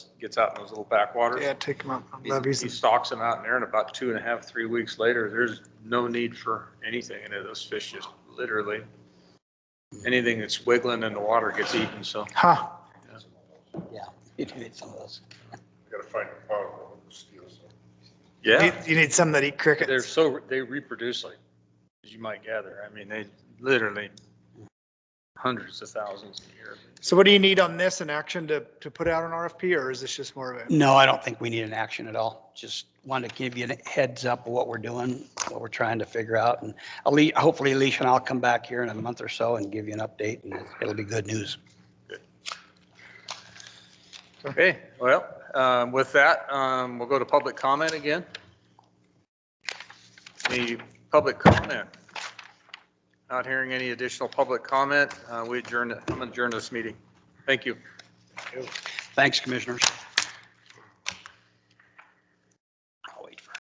gets out in those little backwaters. Yeah, take them out, He- levies. He and- stalks them out in there and about two and a half, three weeks later, there's no need for anything. And those fish just literally, anything that's wiggling in the water gets eaten, so. Huh, Yeah, you do need some of those. Gotta find a power that steals them. You Yeah, need- you need some that eat they're crickets. so, they reproduce like, as you might gather. I mean, they literally hundreds of thousands a year. So what do you need on this in action to, to put out an RFP or is this just more of a? No, I don't think we need an action at all. Just wanted to give you a heads up of what we're doing, what we're trying to figure out. And Ali, hopefully Alicia and I'll come back here in a month or so and give you an update and it'll be good news. Okay, well, um, with that, um, we'll go to public comment again. Any public comment? Not hearing any additional public comment. Uh, We adjourn, I'm adjourned this meeting. Thank you. Thanks, commissioners.